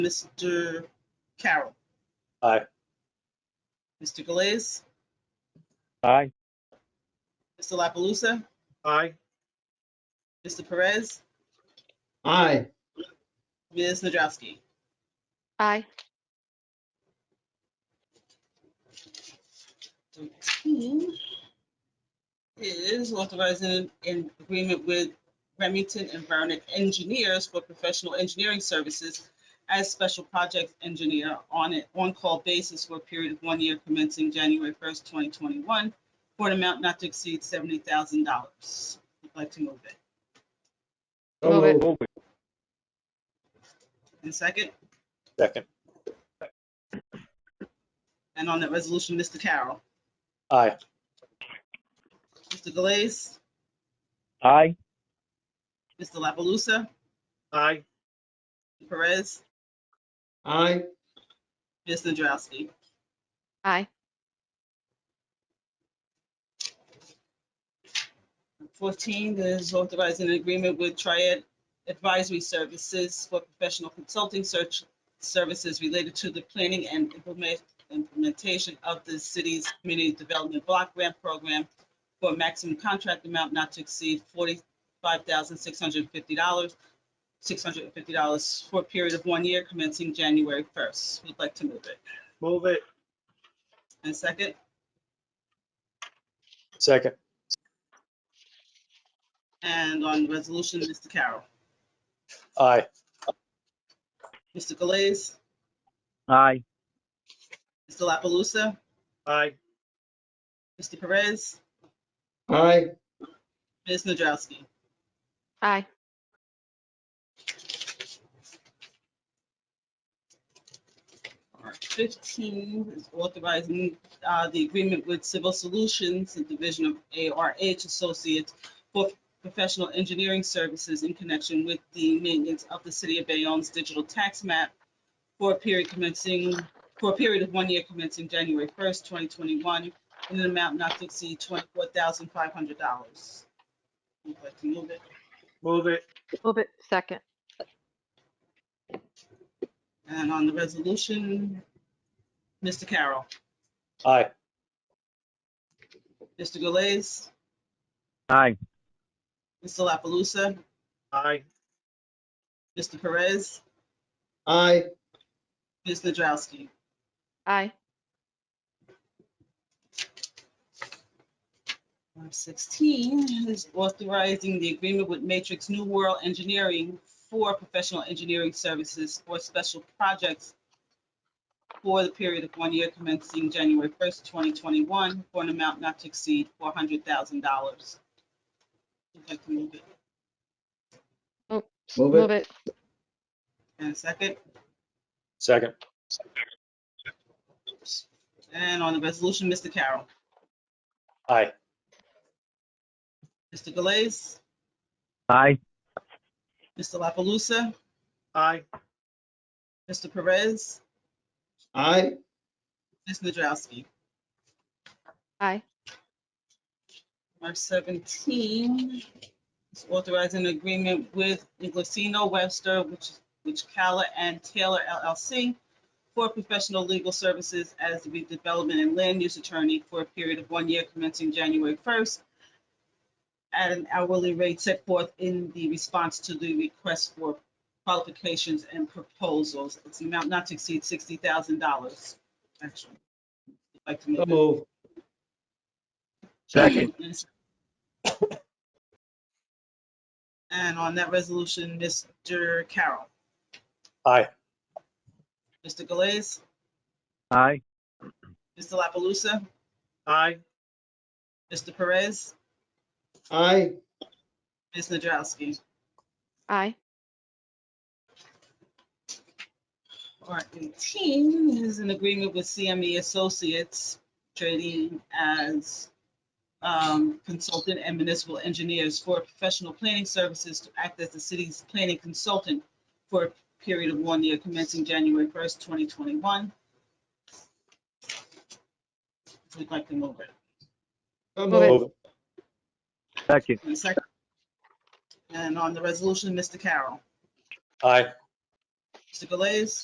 Mr. Carroll. Aye. Mr. Galais, Aye. Mr. La Palusa, Aye. Mr. Perez, Aye. Ms. Nadrowski. Aye. Thirteen Is authorizing an agreement with Remington Environment Engineers for professional engineering services as special project engineer on an on-call basis for a period of one year commencing January first, twenty twenty-one, for an amount not to exceed seventy thousand dollars. I'd like to move it. So Move it. moved. And second, Second. and on that resolution, Mr. Carroll, Aye. Mr. Galais, Aye. Mr. La Palusa, Aye. Perez, Aye. Ms. Nadrowski. Aye. Fourteen is authorizing an agreement with Triad Advisory Services for professional consulting search services related to the planning and implement- implementation of the city's community development block grant program for a maximum contract amount not to exceed forty-five thousand six hundred fifty dollars, six hundred fifty dollars for a period of one year commencing January first. Would like to move it. Move it. And second, Second. and on resolution, Mr. Carroll, Aye. Mr. Galais, Aye. Mr. La Palusa, Aye. Mr. Perez, Aye. Ms. Nadrowski. Aye. All right, Fifteen is authorizing uh, the agreement with Civil Solutions, the division of ARH Associates for professional engineering services in connection with the maintenance of the city of Bayonne's digital tax map for a period commencing, for a period of one year commencing January first, twenty twenty-one, in an amount not to exceed twenty-four thousand five hundred dollars. Would like to move it. Move it. Move it. Second. And on the resolution, Mr. Carroll, Aye. Mr. Galais, Aye. Mr. La Palusa, Aye. Mr. Perez, Aye. Ms. Nadrowski. Aye. Number 16 is authorizing the agreement with Matrix New World Engineering for professional engineering services for special projects for the period of one year commencing January 1st, 2021, for an amount not to exceed $400,000. Would like to move it. Move Move it. it. And a second? Second. And on the resolution, Mr. Carroll, Aye. Mr. Galais, Aye. Mr. La Palusa, Aye. Mr. Perez, Aye. Ms. Nadrowski. Aye. March 17 is authorizing an agreement with Inglesino Webster, which, which Cala and Taylor LLC for professional legal services as the redevelopment and land use attorney for a period of one year commencing January 1st at an hourly rate set forth in the response to the request for qualifications and proposals. It's an amount not to exceed $60,000. Actually, I'd like to So move it. moved. Second. And on that resolution, Mr. Carroll, Aye. Mr. Galais, Aye. Mr. La Palusa, Aye. Mr. Perez, Aye. Ms. Nadrowski. Aye. Part 18 is an agreement with CME Associates trading as um, consultant and municipal engineers for professional planning services to act as the city's planning consultant for a period of one year commencing January 1st, 2021. We'd like to move it. So Move it. moved. Move it. Second. And second. And on the resolution, Mr. Carroll, Aye. Mr. Galais,